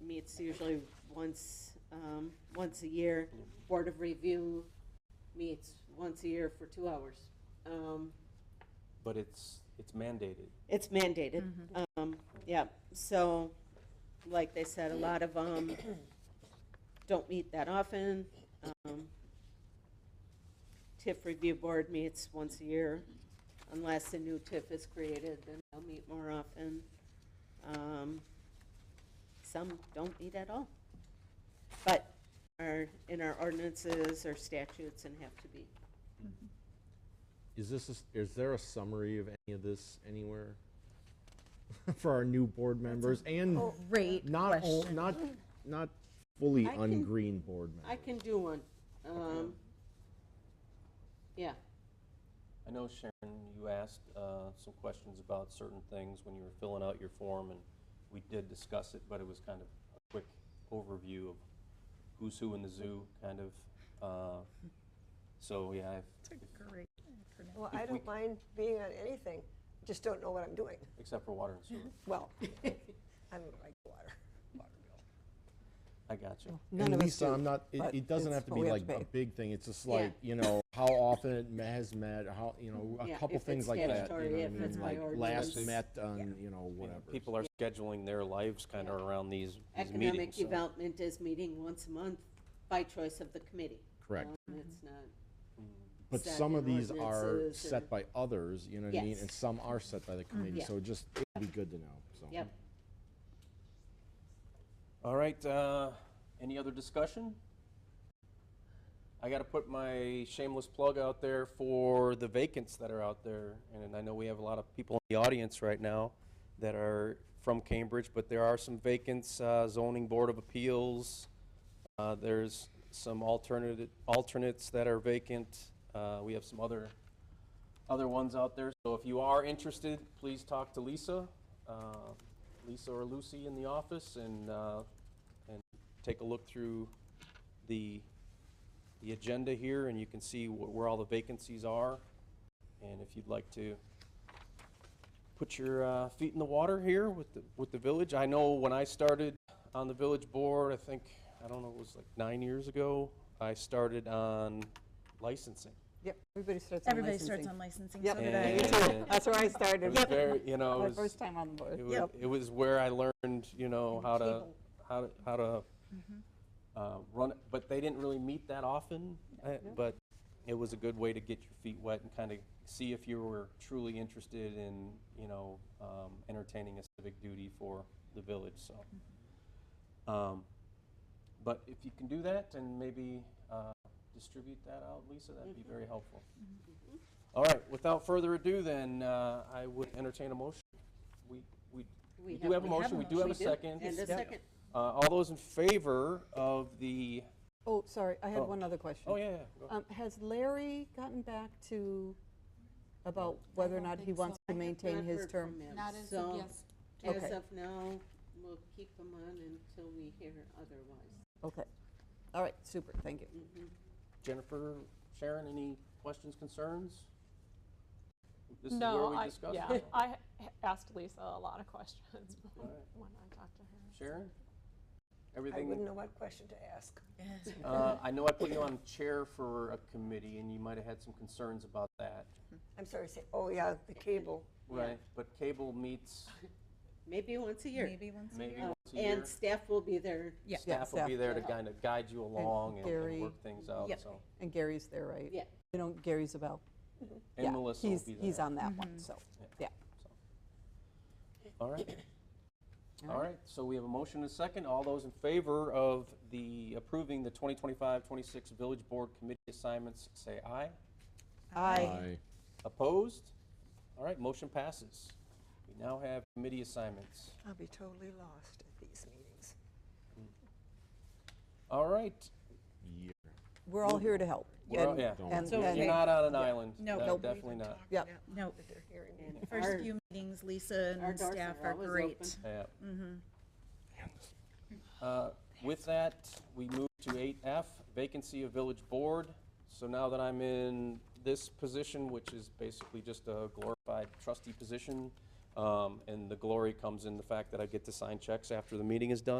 meets usually once, um, once a year. Board of Review meets once a year for two hours. Um, But it's, it's mandated. It's mandated, um, yeah, so, like they said, a lot of, um, don't meet that often. Um, TIF review board meets once a year, unless a new TIF is created, then they'll meet more often. Um, Some don't meet at all, but are in our ordinances or statutes and have to be. Is this, a s- is there a summary of any of this anywhere? For our new board members and Great not, all- question. not, not fully I can- ungreen board members. I can do one, um, yeah. I know Sharon, you asked uh, some questions about certain things when you were filling out your form, and we did discuss it, but it was kind of a quick overview of who's who in the zoo, kind of. uh, So, yeah, I've- Great. Well, I don't mind being on anything, just don't know what I'm doing. except for water and sewer. Well, I don't like water, water bill. I got you. None And of us Lisa, do, I'm not, it, but it doesn't it's have to what be we like pay. a big thing, it's just Yeah. like, you know, how often it ma- has met, how, you know, a Yeah, couple if things it's like that. you statutory, know what I if mean? it's by Like, ordinance. Last met on, you know, I mean, whatever. People are scheduling their lives kind of around these these Economic meetings. so- Development is meeting once a month by choice of the committee. Correct. Um, It's not, But set some of in these are ordinances set or- by others, you know what I mean? Yes. Mm-hmm. And some are set by the committee, Yeah. so just, it'd be good to know, so. yep. All right, uh, any other discussion? I gotta put my shameless plug out there for the vacants that are out there, and I know we have a lot of people in the audience right now that are from Cambridge, but there are some vacants, uh, zoning board of appeals, uh, there's some alternate, alternates that are vacant, uh, we have some other, other ones out there, so if you are interested, please talk to Lisa, uh, Lisa or Lucy in the office, and, uh, and take a look through the, the agenda here, and you can see wh- where all the vacancies are. And if you'd like to put your uh, feet in the water here with the, with the village, I know when I started on the village board, I think, I don't know, it was like nine years ago, I started on licensing. Yep, everybody starts on Everybody starts licensing. on licensing, so Yep. did I. Yeah. too. That's where I It started. was very, you know, My it was- first time on the board. it was, it was where I learned, you know, how to, how to, how to uh, run, it. but they didn't really meet that often. uh, But it was a good way to get your feet wet and kind of see if you were truly interested in, you know, um, entertaining a civic duty for the village, so. Um, But if you can do that and maybe uh, distribute that out, Lisa, that'd be very helpful. All right, without further ado then, uh, I would entertain a motion. We, we we do have a have motion, a we do have a motion. second. And a Uh, second, All those in favor of the, Oh, sorry, I had Oh. one other question. oh, yeah, yeah, go ahead. Um, Has Larry gotten back to, about whether or don't not he think wants so. I to have maintain not his heard term? from him, Not as so of yes. As Okay. of now, we'll keep them on until we hear otherwise. Okay, all right, super, thank you. Mm. Jennifer, Sharon, any questions, concerns? This is where No, we I, discuss it. yeah, I h- asked Lisa a lot of questions when Alright. when I talked to her. Sharon? I wouldn't Everything, know what question to ask. uh, I know I put you on chair for a committee, and you might have had some concerns about that, I'm sorry, say, oh, yeah, the cable. right? But cable meets Maybe once a year. Uh, Maybe once a maybe year. once a year. And staff will be there. Yeah. Staff will staff, be there to yeah. kind of guide you along and- and Gary. work things out, Yep. so. And Gary's there, right? Yeah. You know, Gary Zabel. And Melissa will be there. He's on that Mm-hmm. one, so, yeah. All right. All right, so we have a motion and a second. All those in favor of the approving the 2025-26 Village Board Committee assignments, say aye. I Aye. Opposed? All right, motion passes. We now have committee assignments. I'll be totally lost at these meetings. All right. Yeah. We're all here to help. we're- and- yeah. And, So you're and- not on an island. No, No, nope. Definitely not. yeah, No, and the first our- few meetings, Lisa our and doors staff are are always great. Yeah. Uh, With that, we move to eight F, vacancy of village board. So now that I'm in this position, which is basically just a glorified trustee position, um, and the glory comes in the fact that I get to sign checks after the meeting is done,